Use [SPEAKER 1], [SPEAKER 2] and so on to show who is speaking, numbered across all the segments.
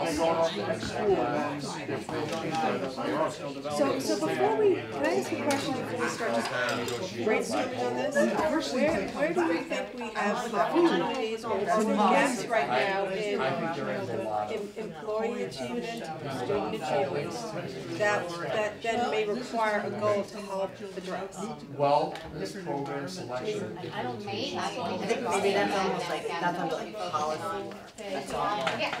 [SPEAKER 1] grown up in school and then they're forced into hierarchical
[SPEAKER 2] So, so before we, can I ask you a question before we start just brainstorming on this? Where, where do we think we have opportunities or gaps right now in, in employee achievement, student achievement? That, that then may require a goal to help address.
[SPEAKER 1] Well, this program selection.
[SPEAKER 3] I
[SPEAKER 4] think maybe that's almost like, that's under like policy. That's all.
[SPEAKER 3] Yeah.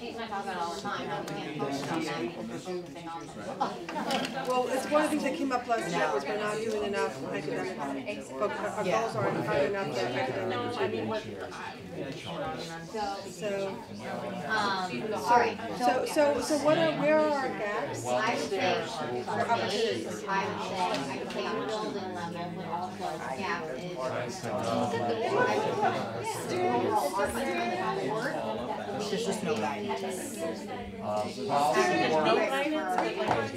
[SPEAKER 3] She's my dog all the time, and we can't focus on that, we can do the thing all the time.
[SPEAKER 2] Well, it's one of the things that came up last year was we're not doing enough academic, but our our goals aren't high enough that academic, I mean, what, so.
[SPEAKER 3] Um, sorry,
[SPEAKER 2] So, so, so what are, where are our gaps?
[SPEAKER 3] I would say, for opportunities, I would say, I would say on building level, but also gap is.
[SPEAKER 4] There's just no guidance.
[SPEAKER 1] Um, policy work,
[SPEAKER 3] But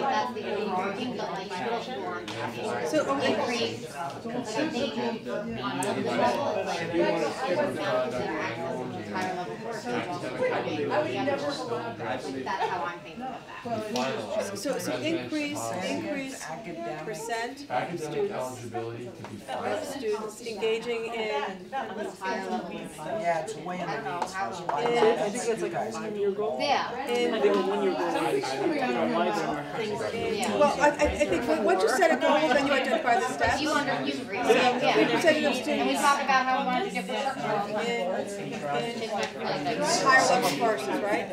[SPEAKER 3] that's the overarching, but like, middle school on campus.
[SPEAKER 2] So, okay,
[SPEAKER 3] Increase, like, I think, on the level, it's like, everyone's now consider access to higher level work. Like, that's how I'm thinking of that.
[SPEAKER 2] so, so increase, increase percent
[SPEAKER 1] academic eligibility to be
[SPEAKER 2] of
[SPEAKER 1] final.
[SPEAKER 2] students engaging in,
[SPEAKER 3] Higher level work.
[SPEAKER 4] Yeah, it's way
[SPEAKER 3] I don't
[SPEAKER 4] under.
[SPEAKER 3] know how.
[SPEAKER 2] in,
[SPEAKER 4] I think that's like a five-year goal.
[SPEAKER 3] Yeah,
[SPEAKER 2] in,
[SPEAKER 3] yeah.
[SPEAKER 2] well, I, I, I think, when- once you set a goal, then you identify the steps.
[SPEAKER 3] You under, you agree, yeah.
[SPEAKER 2] You set enough
[SPEAKER 3] And we
[SPEAKER 2] students
[SPEAKER 3] talked about how we wanted to give the structural,
[SPEAKER 2] in, in
[SPEAKER 3] like, really like.
[SPEAKER 2] higher level courses, right?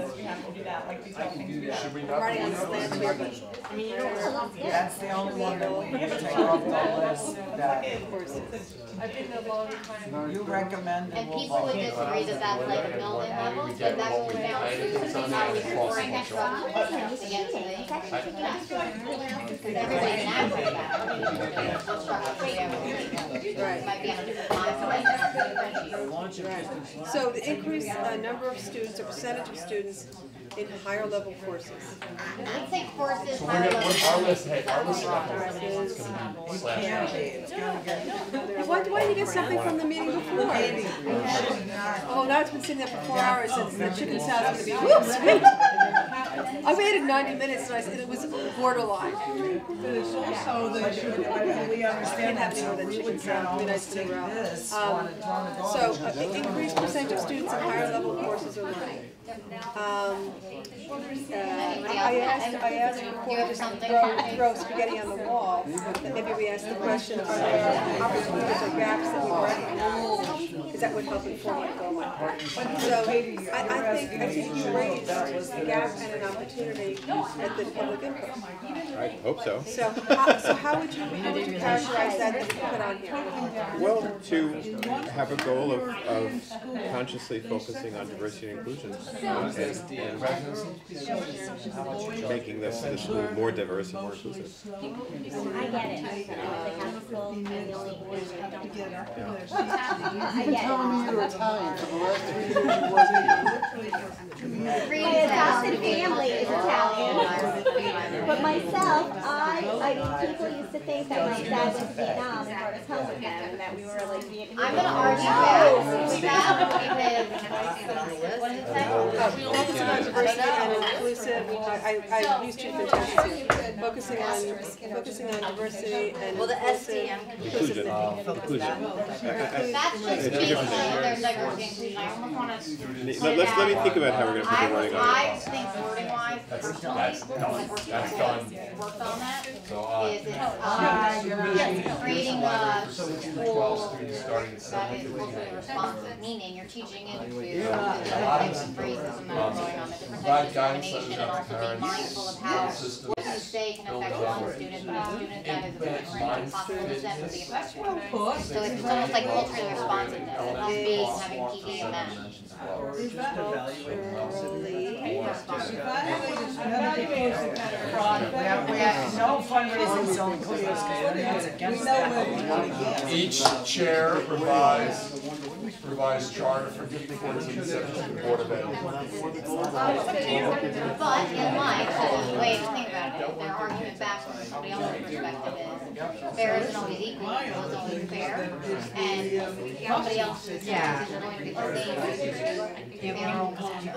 [SPEAKER 1] Should we not?
[SPEAKER 2] Writing on the slant here, but
[SPEAKER 4] That's the only one that we need to take off the list that
[SPEAKER 2] courses.
[SPEAKER 4] you recommend and
[SPEAKER 3] And
[SPEAKER 4] we'll
[SPEAKER 3] people
[SPEAKER 4] vote.
[SPEAKER 3] would disagree that that's like a building level, but that's what we found. Now we bring next level, to get to the. Because everybody can access that.
[SPEAKER 2] Right.
[SPEAKER 3] Might be on a different line.
[SPEAKER 2] So the increase, uh, number of students, or percentage of students in higher level courses.
[SPEAKER 3] I'd say courses,
[SPEAKER 1] So we're gonna,
[SPEAKER 3] higher
[SPEAKER 1] we're- our
[SPEAKER 3] level.
[SPEAKER 1] list, hey, our list of opportunities is gonna be
[SPEAKER 4] Yeah,
[SPEAKER 1] slash.
[SPEAKER 4] It's gonna get,
[SPEAKER 2] Why, why didn't you get something from the meeting before? Oh, now it's been sitting there for four hours and the chicken salad is gonna be, whoops, wait. I waited ninety minutes and I said it was borderline.
[SPEAKER 4] but we understand
[SPEAKER 2] have
[SPEAKER 4] that, so
[SPEAKER 2] that
[SPEAKER 4] we
[SPEAKER 2] chicken
[SPEAKER 4] would then
[SPEAKER 2] salad,
[SPEAKER 4] always
[SPEAKER 2] then
[SPEAKER 4] take
[SPEAKER 2] I threw out.
[SPEAKER 4] this
[SPEAKER 2] Um,
[SPEAKER 4] on a ton of
[SPEAKER 2] So, uh, increased percentage of students in higher level courses are learning. Um, uh, I asked, I asked before, just throw, throw spaghetti on the wall, that maybe we ask the question, are there opportunities or gaps that we recognize? Because that would help inform what goal might be. So, I, I think, I think you raised a gap and an opportunity at the public input.
[SPEAKER 5] I hope so.
[SPEAKER 2] So, how, so how would you, how would you characterize that that you put on here?
[SPEAKER 5] Well, to have a goal of, of consciously focusing on diversity and inclusion uh, and, and
[SPEAKER 1] Residency,
[SPEAKER 5] making this, the school more diverse and more inclusive.
[SPEAKER 6] I get it. I
[SPEAKER 3] get it.
[SPEAKER 6] My adopted family is Italian, but myself, I, I mean, people used to think that my dad was Vietnam and brought us home with him, and that we were like Vietnam.
[SPEAKER 3] I'm gonna argue that, with that, because, what is it say?
[SPEAKER 2] Focusing on diversity and inclusive, I, I, I used two fantastic, focusing on, focusing on diversity and inclusive.
[SPEAKER 5] Inclusion, inclusion.
[SPEAKER 3] That's just
[SPEAKER 5] It's a
[SPEAKER 3] basically
[SPEAKER 5] different thing.
[SPEAKER 3] their diversity inclusion, I almost wanna
[SPEAKER 5] Let, let's, let me think about how we're gonna put
[SPEAKER 3] I
[SPEAKER 5] the
[SPEAKER 3] would,
[SPEAKER 5] wording on it.
[SPEAKER 3] I think wording wise, personally,
[SPEAKER 1] that's
[SPEAKER 3] like we're
[SPEAKER 1] That's
[SPEAKER 3] people
[SPEAKER 1] done.
[SPEAKER 3] that worked on that, is
[SPEAKER 1] so, uh,
[SPEAKER 3] it's, um, creating a
[SPEAKER 1] twelve
[SPEAKER 3] school
[SPEAKER 1] students starting at
[SPEAKER 3] that
[SPEAKER 1] seven
[SPEAKER 3] is
[SPEAKER 1] fifteen.
[SPEAKER 3] culturally responsive, meaning you're teaching it to the types of racism that are going on, the different types
[SPEAKER 1] Provide
[SPEAKER 3] of
[SPEAKER 1] guidance
[SPEAKER 3] discrimination,
[SPEAKER 1] on
[SPEAKER 3] and also being mindful of how
[SPEAKER 1] systems.
[SPEAKER 3] what you say can affect one student, but a student that is a different, possible step would be affected. So it's it's almost like culturally responsiveness, and that's based having PD in that.
[SPEAKER 4] We have no fundraising, so inclusive, it's against that.
[SPEAKER 1] Each chair provides, provides charter for each board's conception board of ed.
[SPEAKER 3] Oh, But in life, that's the way to think about it, their argument back from somebody else's perspective is, fair isn't always equal, equal is always fair, and somebody else's perspective is going to be the same. as their own.